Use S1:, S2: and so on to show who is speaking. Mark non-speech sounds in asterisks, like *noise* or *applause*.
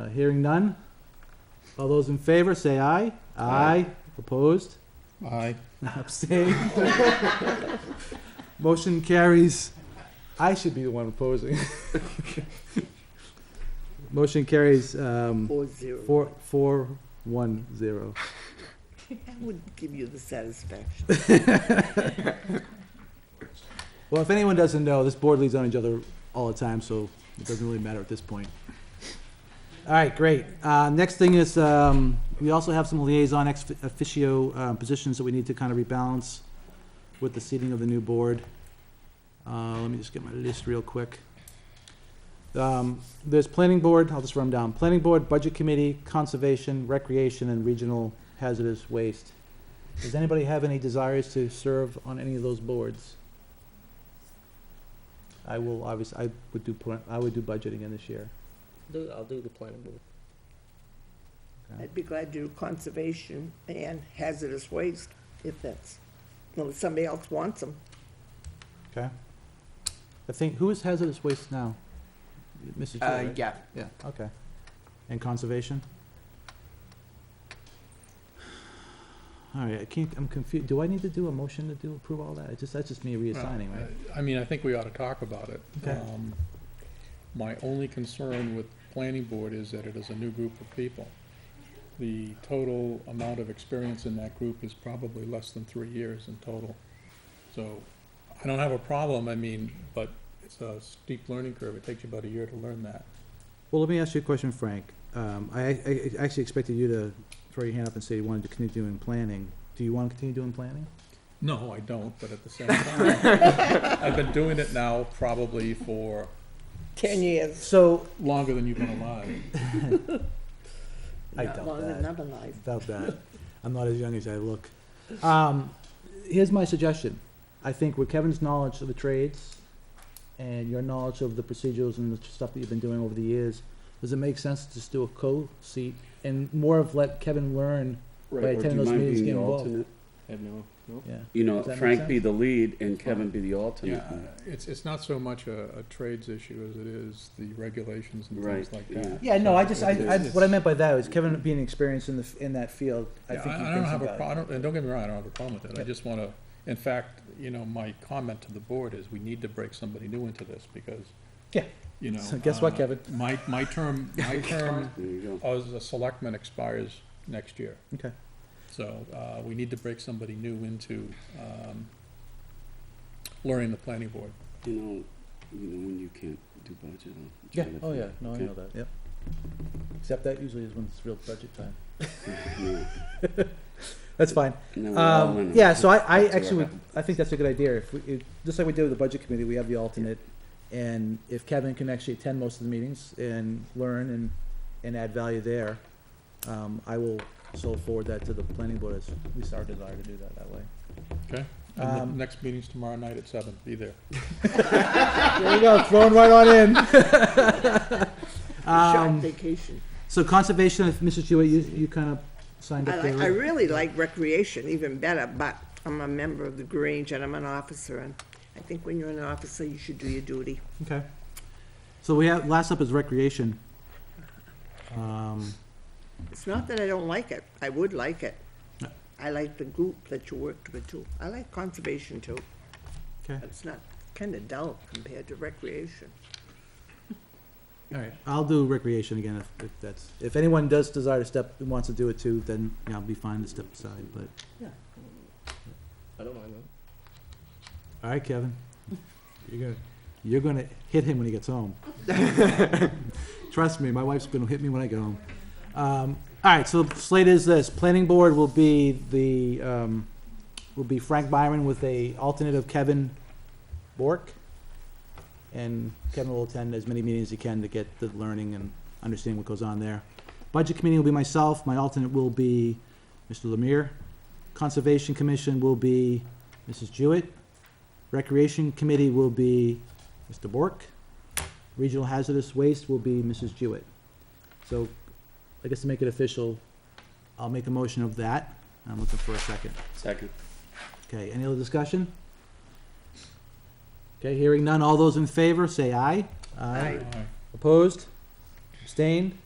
S1: Uh, Hearing none. All those in favor, say aye. Aye. Opposed? *laughs*
S2: Aye.
S1: Abstained? *laughs* Motion carries. I should be the one opposing. *laughs* Motion carries, um,
S3: Four zero.
S1: four, four, one, zero.
S3: I would give you the satisfaction.
S1: Well, if anyone doesn't know, this board leads on each other all the time, so it doesn't really matter at this point. All right, great. Uh, next thing is, um, we also have some liaison ex officio, um, positions that we need to kind of rebalance with the seating of the new board. Uh, let me just get my list real quick. Um, there's planning board, I'll just run 'em down. Planning board, budget committee, conservation, recreation, and regional hazardous waste. Does anybody have any desires to serve on any of those boards? I will obviously, I would do, plan- I would do budget again this year.
S4: Do, I'll do the planning board.
S3: I'd be glad to do conservation and hazardous waste if that's, well, if somebody else wants them.
S1: Okay. I think, who is hazardous waste now? Mrs. Chair,
S4: Uh,
S1: right?
S4: yeah,
S1: Okay. And conservation? All right, I can't, I'm confused. Do I need to do a motion to do, approve all that? It's just, that's just me reassigning,
S4: uh,
S1: right?
S2: Uh, I mean, I think we ought to talk about it.
S1: Okay.
S2: Um, My only concern with planning board is that it is a new group of people. The total amount of experience in that group is probably less than three years in total. So I don't have a problem, I mean, but it's a steep learning curve. It takes you about a year to learn that.
S1: Well, let me ask you a question, Frank. Um, I, I I actually expected you to throw your hand up and say you wanted to continue doing planning. Do you want to continue doing planning?
S2: No, I don't, but at the same time, I've been doing it now probably for
S3: Ten years,
S1: So.
S2: longer than you've been alive.
S1: I
S3: not
S1: doubt
S3: longer
S1: that.
S3: than other life.
S1: About that. I'm not as young as I look. Um, here's my suggestion. I think with Kevin's knowledge of the trades and your knowledge of the procedures and the stuff that you've been doing over the years, does it make sense to just do a co-seat and more of let Kevin learn? Right,
S5: Or
S1: attend
S5: do you
S1: those
S5: mind
S1: meetings,
S5: being
S1: get
S5: the
S1: involved.
S5: alternate?
S4: no, no.
S1: Yeah.
S5: You know,
S1: Does that make
S5: Frank be the lead and Kevin be the alternate.
S2: Yeah, it's, it's not so much a, a trades issue as it is the regulations and things
S5: Right,
S2: like
S5: yeah.
S2: that.
S1: Yeah, no, I just, I, I,
S2: It's-
S1: what I meant by that was Kevin being experienced in the, f- in that field, I
S2: Yeah,
S1: think he
S2: I don't
S1: thinks
S2: have a
S1: about it.
S2: problem, and don't get me wrong, I don't have a problem with that. I
S1: Yep.
S2: just want to, in fact, you know, my comment to the board is we need to break somebody new into this because,
S1: Yeah.
S2: you know.
S1: So guess what,
S2: uh,
S1: Kevin?
S2: My, my
S1: *laughs*
S2: term, my term
S5: There you go.
S2: as a selectman expires next year.
S1: Okay.
S2: So, uh, we need to break somebody new into, um, learning the planning board.
S5: You know, you know, when you can't do budget. I'll
S1: Yeah,
S5: try to
S1: oh yeah,
S5: find-
S1: no, I
S5: okay?
S1: know that, yep. Except that usually is when it's real budget time.
S5: *laughs* Yeah.
S1: That's fine.
S5: No, we're all in
S1: Um,
S5: on
S1: yeah,
S5: it.
S1: so I, I
S5: That's what
S1: actually, would
S5: happened.
S1: I think that's a good idea. If we, if, just like we did with the budget committee, we have the alternate. And if Kevin can actually attend most of the meetings and learn and, and add value there, um, I will so forward that to the planning board as we our desire to do that that way.
S2: And the
S1: Um,
S2: next meeting's tomorrow night at seven. Be there.
S1: There you go, thrown right on in.
S3: Short
S1: Um,
S3: vacation.
S1: so conservation, if Mrs. Hewitt, you, you kind of signed
S3: I
S1: up
S3: like,
S1: there.
S3: I
S1: right?
S3: really like recreation even better, but I'm a member of the Grange and I'm an officer, and I think when you're an officer, you should do your duty.
S1: Okay. So we have, last up is recreation. Um,
S3: It's not that I don't like it, I would like it.
S1: No.
S3: I like the group that you worked with too. I like conservation too.
S1: okay.
S3: It's not kind of dull compared to recreation.
S1: All right, I'll do recreation again if, if that's, if anyone does desire to step, and wants to do it too, then, you know, I'll be fine to step aside, but,
S4: I don't mind that.
S1: all right, Kevin. You're gonna, you're gonna hit him when he gets home. Trust me, my wife's gonna hit me when I get home. Um, all right, so the slate is this, planning board will be the, um, will be Frank Byron with a alternate of Kevin Bork. And Kevin will attend as many meetings as he can to get the learning and understanding what goes on there. Budget committee will be myself, my alternate will be Mr. Lemire. Conservation commission will be Mrs. Jewett. Recreation committee will be Mr. Bork. Regional hazardous waste will be Mrs. Jewett. So, I guess to make it official, I'll make a motion of that. I'm looking for a second.
S5: Second.
S1: Okay, any other discussion? Okay, hearing none, all those in favor, say aye.
S3: Aye.
S2: All right.
S1: Opposed? Abstained?